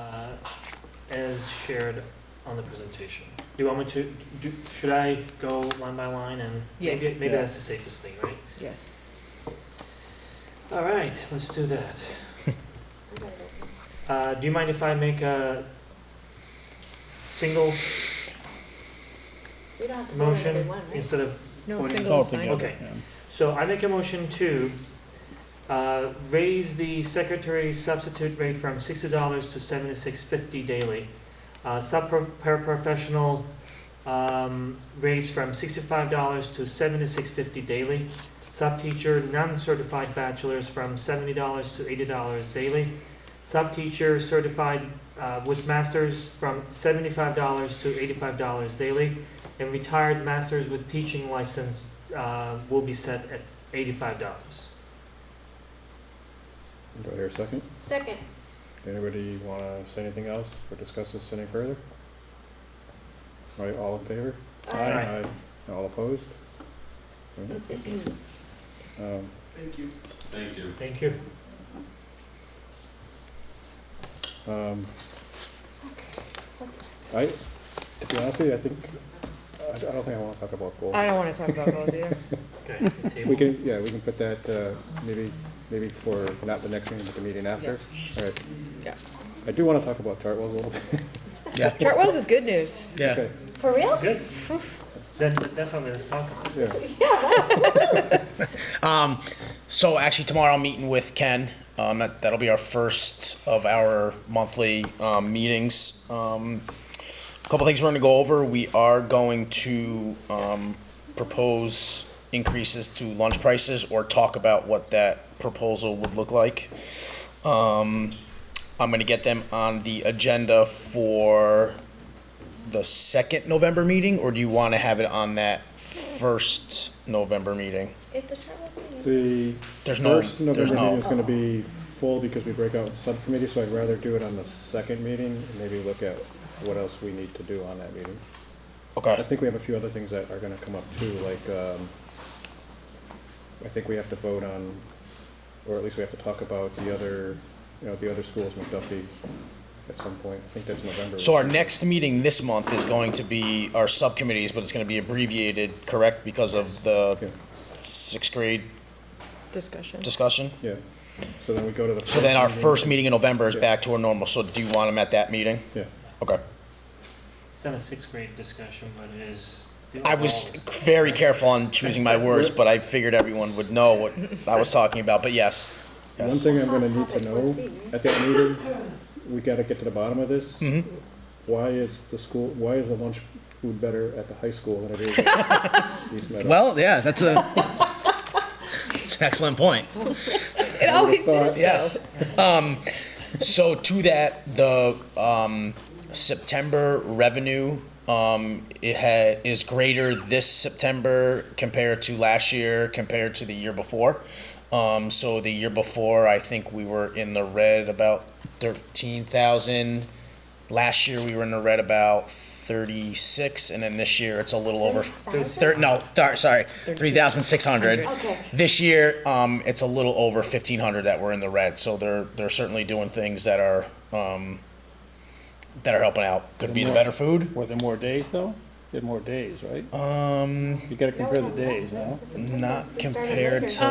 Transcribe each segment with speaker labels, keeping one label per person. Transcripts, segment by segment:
Speaker 1: uh, as shared on the presentation. Do you want me to, do, should I go line by line and?
Speaker 2: Yes.
Speaker 1: Maybe, maybe
Speaker 3: Yeah.
Speaker 1: that's the safest thing, right?
Speaker 2: Yes.
Speaker 1: All right, let's do that. Uh, do you mind if I make a single
Speaker 4: We don't have to vote on every
Speaker 1: motion
Speaker 4: one, right?
Speaker 1: instead of,
Speaker 2: No,
Speaker 1: Voting
Speaker 2: single
Speaker 3: All
Speaker 2: is fine.
Speaker 3: together,
Speaker 1: Okay.
Speaker 3: yeah.
Speaker 1: so I make a motion to, uh, raise the secretary substitute rate from sixty dollars to seventy-six fifty daily. Uh, sub-paraprofessional, um, raise from sixty-five dollars to seventy-six fifty daily. Sub-teacher, non-certified bachelors from seventy dollars to eighty dollars daily. Sub-teacher certified, uh, with masters from seventy-five dollars to eighty-five dollars daily. And retired masters with teaching license, uh, will be set at eighty-five dollars.
Speaker 3: Do I hear a second?
Speaker 4: Second,
Speaker 3: Anybody want to say anything else or discuss this any further? All right, all in favor?
Speaker 4: Aye.
Speaker 1: Aye.
Speaker 3: Aye. All opposed? All right. Um,
Speaker 5: Thank you.
Speaker 1: Thank you.
Speaker 3: um, I, to be honest with you, I think, I I don't think I want to talk about goals.
Speaker 2: I don't want to talk about goals either.
Speaker 1: Okay,
Speaker 3: We
Speaker 1: table.
Speaker 3: can, yeah, we can put that, uh, maybe, maybe for, not the next meeting, but the meeting after. All right.
Speaker 2: Yeah.
Speaker 3: I do want to talk about Chartwell's a little bit.
Speaker 2: Chartwell's is good news.
Speaker 3: Yeah.
Speaker 4: for real?
Speaker 1: Good. Then definitely let's talk about it.
Speaker 3: Yeah,
Speaker 6: Um, so actually tomorrow I'm meeting with Ken. Um, that, that'll be our first of our monthly um, meetings. Um, a couple things we're going to go over. We are going to um, propose increases to lunch prices or talk about what that proposal would look like. Um, I'm going to get them on the agenda for the second November meeting, or do you want to have it on that first November meeting?
Speaker 4: Is the Chartwell thing?
Speaker 3: the
Speaker 6: There's no,
Speaker 3: first
Speaker 6: there's
Speaker 3: November meeting
Speaker 6: no,
Speaker 3: is gonna be full because we break out in subcommittee, so I'd rather do it on the second meeting and maybe look at what else we need to do on that meeting. I
Speaker 6: okay,
Speaker 3: think we have a few other things that are gonna come up too, like, um, I think we have to vote on, or at least we have to talk about the other, you know, the other schools, McDuffie, at some point. I think that's November.
Speaker 6: so our next meeting this month is going to be our subcommittees, but it's gonna be abbreviated, correct, because of
Speaker 3: Yeah,
Speaker 6: the sixth grade
Speaker 2: Discussion.
Speaker 6: discussion?
Speaker 3: yeah. So then we go to the.
Speaker 6: So then our
Speaker 3: meeting.
Speaker 6: first meeting in November is
Speaker 3: Yeah.
Speaker 6: back to our normal, so do you want them at that meeting?
Speaker 3: Yeah,
Speaker 6: Okay,
Speaker 1: It's not a sixth grade discussion, but it is. the
Speaker 6: I was
Speaker 1: overall-
Speaker 6: very careful on choosing my words, but I figured everyone would know what I was talking about, but yes,
Speaker 3: one
Speaker 6: yes,
Speaker 3: thing I'm gonna need to know at that meeting, we gotta get to the bottom of this.
Speaker 6: Mhm.
Speaker 3: Why is the school, why is the lunch food better at the high school than it is at East Meadow?
Speaker 6: well, yeah, that's a, it's an excellent point.
Speaker 2: It always
Speaker 3: thought-
Speaker 2: is.
Speaker 6: Yes. Um, so to that, the um, September revenue um, it ha- is greater this September compared to last year, compared to the year before. Um, so the year before, I think we were in the red about thirteen thousand. Last year we were in the red about thirty six, and then this year it's a little over. Thir- no, thir- sorry, three thousand six hundred.
Speaker 4: Okay.
Speaker 6: This year, um, it's a little over fifteen hundred that were in the red, so they're they're certainly doing things that are um, that are helping out. Could be the better food.
Speaker 7: Were there more days though? There more days, right?
Speaker 6: Um,
Speaker 7: You gotta compare the days, no?
Speaker 6: not compared to
Speaker 8: Uh,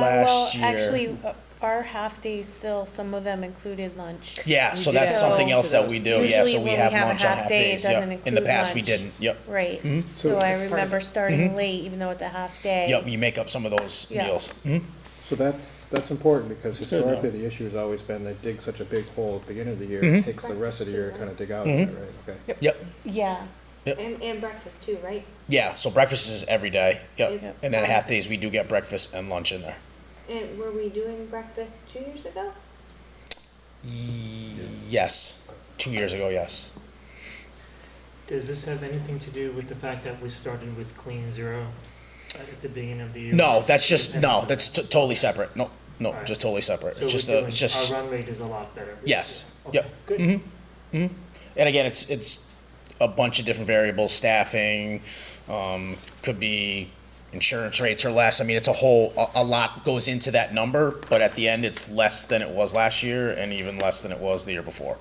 Speaker 6: last
Speaker 8: well,
Speaker 6: year.
Speaker 8: Actually, uh, our half days still, some of them included lunch.
Speaker 6: yeah, so
Speaker 2: did
Speaker 6: that's
Speaker 8: go
Speaker 6: something
Speaker 2: to
Speaker 6: else that
Speaker 2: those.
Speaker 6: we do. Yeah,
Speaker 8: Usually
Speaker 6: so we
Speaker 8: when
Speaker 6: have
Speaker 8: we have a
Speaker 6: lunch on
Speaker 8: half
Speaker 6: half
Speaker 8: day, it
Speaker 6: days. Yep.
Speaker 8: doesn't
Speaker 6: In the
Speaker 8: include
Speaker 6: past, we
Speaker 8: lunch.
Speaker 6: didn't. Yep.
Speaker 8: Right.
Speaker 4: Mm-hmm.
Speaker 3: So-
Speaker 8: So I remember starting late, even though it's a half day.
Speaker 6: Yep. You make up some of those
Speaker 8: Yeah.
Speaker 6: meals. Mhm.
Speaker 3: So that's, that's important, because
Speaker 7: good, though.
Speaker 3: historically, the issue has always been they dig such a big hole at the beginning of the year,
Speaker 6: Mm-hmm.
Speaker 3: it takes the rest of the year to kind of dig out, of it, right? Okay.
Speaker 6: Yep.
Speaker 8: Yeah.
Speaker 4: And, and breakfast too, right?
Speaker 6: Yeah. So breakfast is every day. Yep.
Speaker 4: Is-
Speaker 6: And then half days we do get breakfast and lunch in there.
Speaker 4: And were we doing breakfast two years ago?
Speaker 6: Yes. Two years ago. Yes.
Speaker 1: Does this have anything to do with the fact that we started with clean zero at the beginning of the year?
Speaker 6: No, that's just no. That's t- totally separate. No, no,
Speaker 1: Alright.
Speaker 6: just totally separate.
Speaker 1: So
Speaker 6: It's
Speaker 1: we're
Speaker 6: just a,
Speaker 1: doing-
Speaker 6: it's just.
Speaker 1: Our run rate is a lot better.
Speaker 6: Yes.
Speaker 1: Okay,
Speaker 6: Yep.
Speaker 1: Good.
Speaker 6: And again, it's it's a bunch of different variables. Staffing, um, could be insurance rates or less. I mean, it's a whole a, a lot goes into that number. But at the end, it's less than it was last year, and even less than it was the year before.